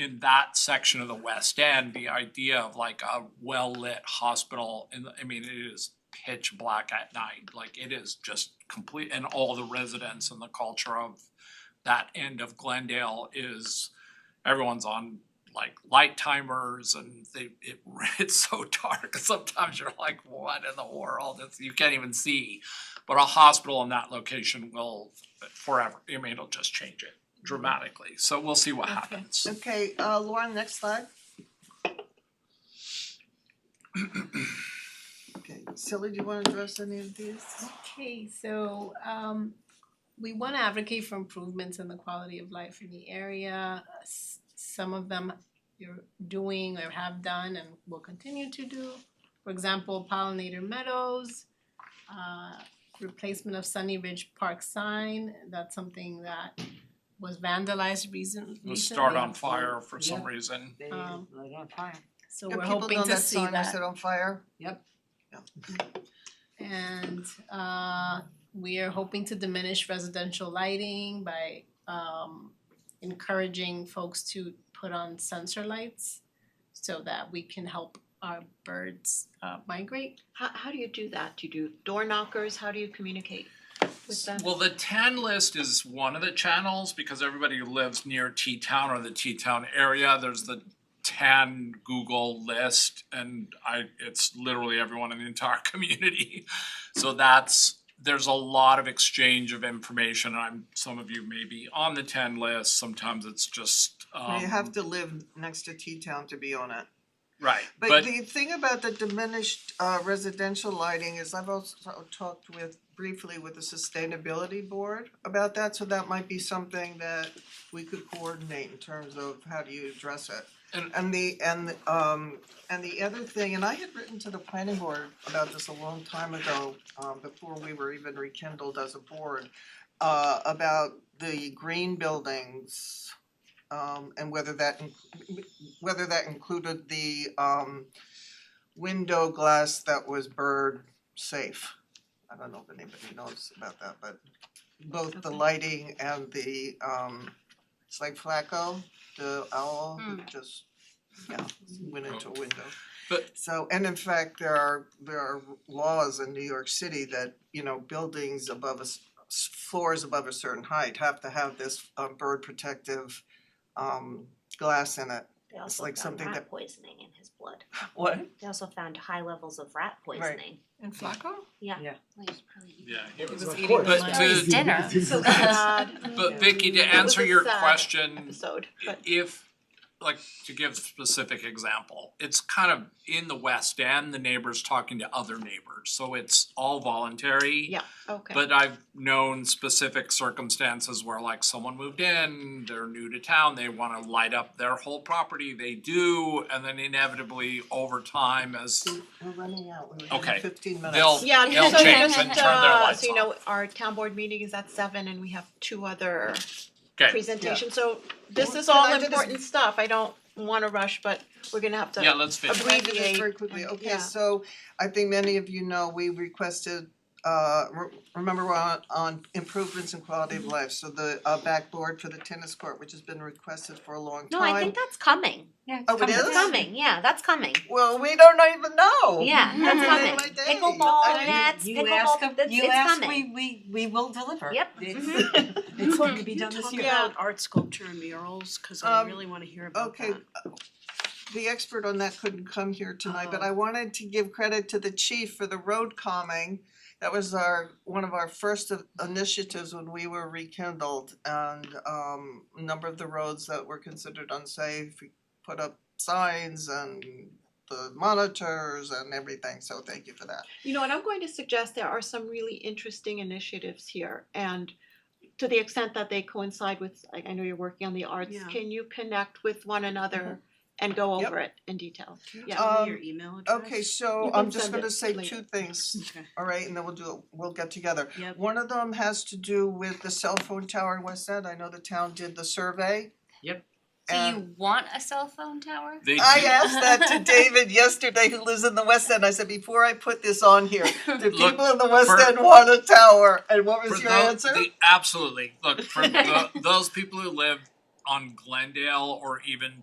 in that section of the West End, the idea of like a well-lit hospital, and I mean, it is pitch black at night, like it is just complete, and all the residents and the culture of that end of Glendale is, everyone's on like light timers and they, it, it's so dark, sometimes you're like, what in the world, it's, you can't even see. But a hospital in that location will forever, I mean, it'll just change it dramatically, so we'll see what Okay. happens. Okay, uh Lauren, next slide. Okay, Silly, do you wanna address any of these? Okay, so um we wanna advocate for improvements in the quality of life in the area. S- Some of them you're doing or have done and will continue to do. For example, pollinator meadows, uh replacement of Sunny Ridge Park sign, that's something that was vandalized recent recently. It'll start on fire for Yeah. some reason. They Um, light on fire. So Yeah, we're people hoping know to see sign I set on fire? And uh we are hoping to diminish residential lighting by um encouraging folks to put on sensor lights so that we can help our birds uh migrate. How how do you do that? Do you do door knockers? How do you communicate with them? Well, the ten list is one of the channels because everybody who lives near T-town or the T-town area, there's the ten Google list and I, it's literally everyone in the entire community. So that's, there's a lot of exchange of information. I'm, some of you may be on the ten list, sometimes it's just Well, um You have to live next to T-Town to be on it. right, But the thing about the diminished uh residential lighting is I've also talked with briefly with the sustainability board about that, so that might be something that we could coordinate in terms of how do you address it. And- And the and um and the other thing, and I had written to the planning board about this a long time ago, um before we were even rekindled as a board, uh about the green buildings um and whether that in- whether that included the um window glass that was bird safe. I don't know if anybody knows about that, but both the Okay. lighting and the um it's like Flacco, the owl who Hmm. just yeah, went into a window. But- So and in fact, there are there are laws in New York City that, you know, buildings above a s- s- floors above a certain height have to have this uh bird protective um glass in it. They also like found something rat that- poisoning in his blood. What? They also found high levels of rat poisoning. And Flacco? yeah, it He was- was eating But lunch. to- His dinner. So sad. But Vicky, to It was answer a your sad question, Episode, but if, like, to give specific example, it's kind of in the West End, the neighbors talking to other neighbors, so it's all voluntary. yeah, okay. But I've known specific circumstances where like someone moved in, they're new to town, they wanna light up their whole property, they do, and then inevitably over time as We're running out, we're Okay. running fifteen minutes. They'll- Yeah, They'll so change and just, turn their uh, lights so you off. know, our town board meeting is at seven and we have two other Okay. presentations, so this Well, is can I all do this- important stuff. I don't wanna rush, but we're gonna have to Yeah, let's finish. Okay. Can I do this abbreviate Very quickly, and- okay, yeah. so I think many of you know, we requested, uh, re- remember we're on, on improvements in quality Mm-hmm. of life, so the, uh, backboard for the tennis court, which has been requested for a long No, time. I think that's coming. Yeah, Oh, it It's is? coming. Yeah, that's coming. Well, we don't even know. Yeah, Mhm. that's Mhm. coming. My day. Pickleball I- nets, You ask, pickleball, that's, you it's ask, coming. we we we will deliver. Yep. Mm-hmm. It's it's going to be done this year. Yeah. about art sculpture and murals, cause I Um, really wanna hear about that. Okay, uh, the expert on that couldn't come here tonight, but Oh. I wanted to give credit to the chief for the road calming. That was our, one of our first of- initiatives when we were rekindled and um a number of the roads that were considered unsafe, we put up signs and the monitors and everything, so thank you for that. You know, and I'm going to suggest there are some really interesting initiatives here and to the extent that they coincide with, I I know you're working on the arts, Yeah. can you connect with one another and go Yep. over it in detail? Can you yeah. tell me Um, your email address? Okay, so You can I'm just send gonna it say later. two things. Okay. All right, and then we'll do, we'll get together. Yep. One of them has to do with the cell phone tower in West End. I know the town did the survey. Yep. So And you want a cell phone tower? They I do- asked that to David yesterday, who lives in the West End. I said, before I put this on here, do Look, people in the West for- End want a tower? And what was For your tho- answer? the- absolutely. Look, for tho- those people who live on Glendale or even